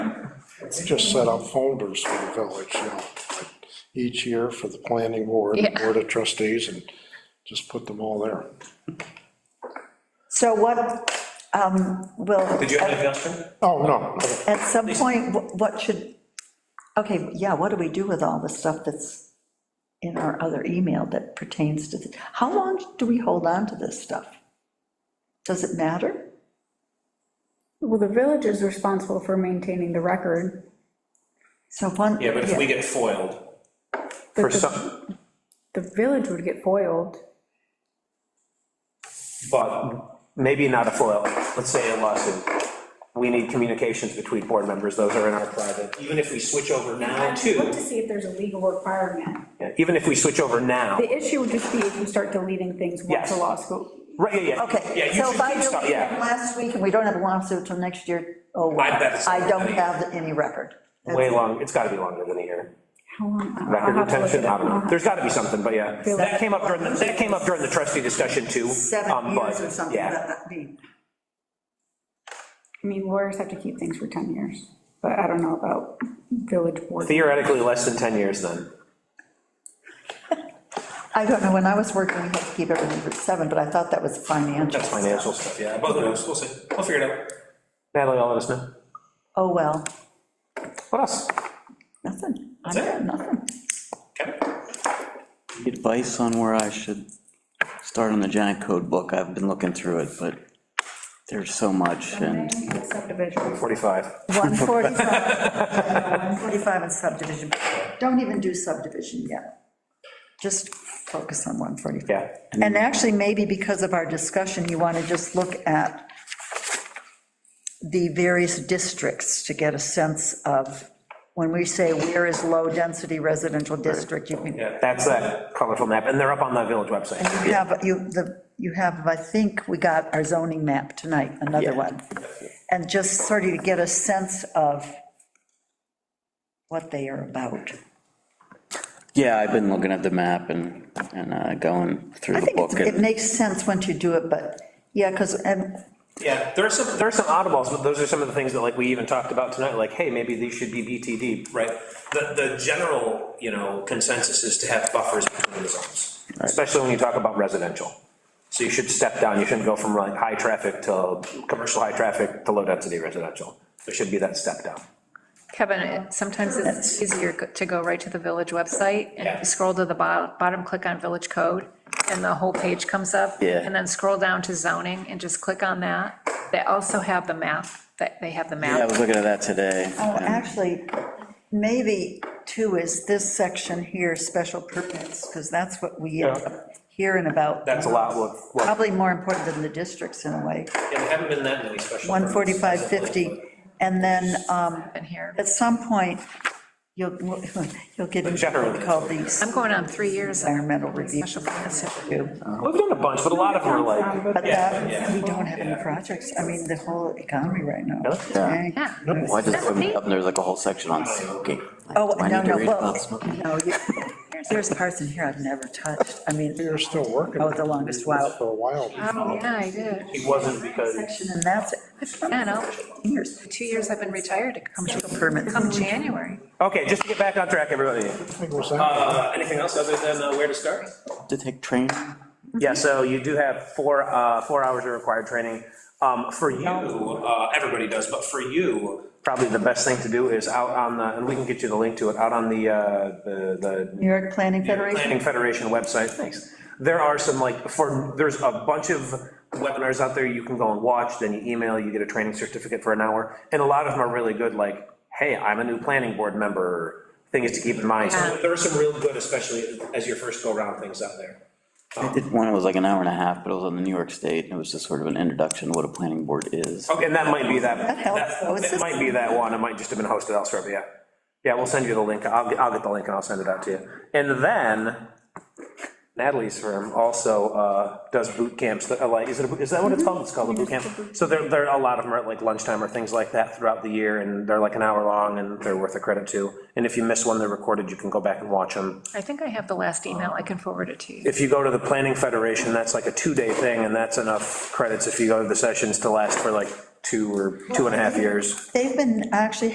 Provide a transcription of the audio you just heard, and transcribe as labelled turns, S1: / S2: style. S1: just set up folders for the village, you know, like each year for the planning board, and
S2: Yeah.
S1: board of trustees, and just put them all there.
S3: So what, um, will,
S4: Did you have anything else, Jim?
S1: Oh, no,
S3: at some point, wh- what should, okay, yeah, what do we do with all the stuff that's in our other email that pertains to, the- how long do we hold on to this stuff? Does it matter?
S5: Well, the village is responsible for maintaining the record.
S3: So one.
S4: Yeah, but if we get foiled,
S5: but
S6: For
S5: the-
S6: some,
S5: The village would get foiled.
S6: but maybe not a FOIL, let's say a lawsuit. We need communications between board members, those are in our private, even if we switch over now
S5: Look to
S6: to,
S5: see if there's a legal requirement.
S6: Yeah, even if we switch over now,
S5: The issue would just be if you start deleting things once
S6: Yes.
S5: a law school.
S6: right, yeah, yeah.
S3: Okay.
S6: Yeah, you
S3: So
S6: should
S3: if I
S6: keep
S3: do
S6: stuff,
S3: it
S6: yeah,
S3: Last week, and we don't have a lawsuit till next year, oh, well,
S4: I bet it's-
S3: I don't have any record. That's
S6: way
S3: it.
S6: long, it's gotta be longer than a year.
S5: How long? I'll- I'll have
S6: Record
S5: to look
S6: retention,
S5: it
S6: I
S5: up.
S6: don't know, there's gotta be something, but yeah. That came up during, the- that came up during the trustee discussion too.
S3: Seven
S6: um, but,
S3: years or something,
S6: Yeah,
S3: that, that be.
S5: I mean, lawyers have to keep things for 10 years, but I don't know about village board.
S6: theoretically, less than 10 years then.
S3: I don't know, when I was working, we had to keep everything for seven, but I thought that was financial.
S6: That's financial stuff, yeah.
S4: yeah, both of those, we'll see, we'll figure it out.
S6: Natalie, I'll let us know.
S3: Oh, well,
S6: What else?
S3: nothing, I
S4: That's it?
S3: got nothing.
S4: Kevin?
S7: Advice on where I should start on the giant code book, I've been looking through it, but there's so much, and
S5: Subdivision.
S6: 45.
S3: 145, yeah, 145 and subdivision, don't even do subdivision yet. Just focus on 145.
S6: Yeah.
S3: And actually, maybe because of our discussion, you want to just look at the various districts to get a sense of, when we say where is low-density residential district, you can,
S6: Yeah, that's that colorful map, and they're up on the village website.
S3: you have, you, the, you have, I think, we got our zoning map tonight, another
S7: Yeah.
S3: one. And just sort of to get a sense of what they are about.
S7: yeah, I've been looking at the map and, and uh, going
S3: I
S7: through the
S3: think
S7: book.
S3: it's- it
S7: and-
S3: makes sense once you do it, but, yeah, because, and
S4: Yeah, there are some,
S6: There are some oddballs, but those are some of the things that like we even talked about tonight, like, hey, maybe these should be BTD.
S4: right, the, the general, you know, consensus is to have buffers between the zones.
S6: Especially when you talk about residential. So you should step down, you shouldn't go from like high traffic to, commercial high traffic to low density residential. There should be that step down.
S2: Kevin, it- sometimes it's easier go- to go right to the village website and if you scroll to the bottom, bottom, click on village code, and the whole page comes up.
S7: Yeah.
S2: And then scroll down to zoning and just click on that. They also have the map, that, they have the
S7: Yeah, I
S2: map.
S7: was looking at that today.
S3: Oh,
S7: and-
S3: actually, maybe two is this section here, special permits, because that's what we end up hearing about.
S6: That's a lot, what, what,
S3: Probably more important than the districts in a way,
S4: Yeah, there haven't been that many special. permits.
S3: 145, 50. And then um,
S2: In here.
S3: at some point, you'll, you'll get into what
S6: Generally.
S3: we call these
S2: I'm going on three years of
S3: environmental review.
S2: special permits.
S6: we've done a bunch, but a lot of them are like,
S3: But that,
S4: yeah.
S3: we don't have any projects. I mean, the whole economy right now.
S7: Yeah.
S3: Dang.
S2: Yeah.
S7: Well, I just
S2: That's
S7: opened
S2: neat.
S7: it up, and there's like a whole section on smoking. Like,
S3: Oh,
S7: do I
S3: no,
S7: need to
S3: no,
S7: read
S3: well,
S7: about smoking?
S3: no, you- there's parts in here I've never touched. I mean,
S1: you're still working.
S3: Oh, the longest while.
S1: For a while.
S2: Oh, yeah, I did.
S6: it wasn't because.
S3: section, and that's
S2: Yeah, no,
S3: years.
S2: two years I've been retired, it comes,
S3: Permit.
S2: come January.
S6: Okay, just to get back on track, everybody.
S1: Thing was that?
S4: Uh, anything else other than uh, where to start?
S7: To take train,
S6: Yeah, so you do have four, uh, four hours of required training. Um, for you,
S4: You, uh, everybody does, but for you,
S6: probably the best thing to do is out on the, and we can get you the link to it, out on the, uh, the,
S3: New York Planning
S6: the Planning
S3: Federation.
S6: Federation website, thanks. There are some like, for, there's a bunch of webinars out there you can go and watch, then you email, you get a training certificate for an hour. And a lot of them are really good, like, hey, I'm a new planning board member, things to keep in mind. So
S4: there are some real good, especially as your first go-around things out there.
S7: I did one, it was like an hour and a half, but it was on the New York State, and it was just sort of an introduction to what a planning board is.
S6: Okay, and that might be that,
S3: That helps, though. It's
S6: that- that
S3: just-
S6: might be that one, it might just have been hosted elsewhere, but yeah. Yeah, we'll send you the link, I'll, I'll get the link and I'll send it out to you. And then Natalie's firm also uh, does boot camps, that are like, is it, a boot- is that what it's called? It's called Mm-hmm. a boot camp? So there, there are a lot of them are at like lunchtime or things like that throughout the year, and they're like an hour long, and they're worth a credit too. And if you miss one, they're recorded, you can go back and watch them.
S2: I think I have the last email, I can forward it to you.
S6: If you go to the Planning Federation, that's like a two-day thing, and that's enough credits if you go to the sessions to last for like two or two and a half years.
S3: They've been actually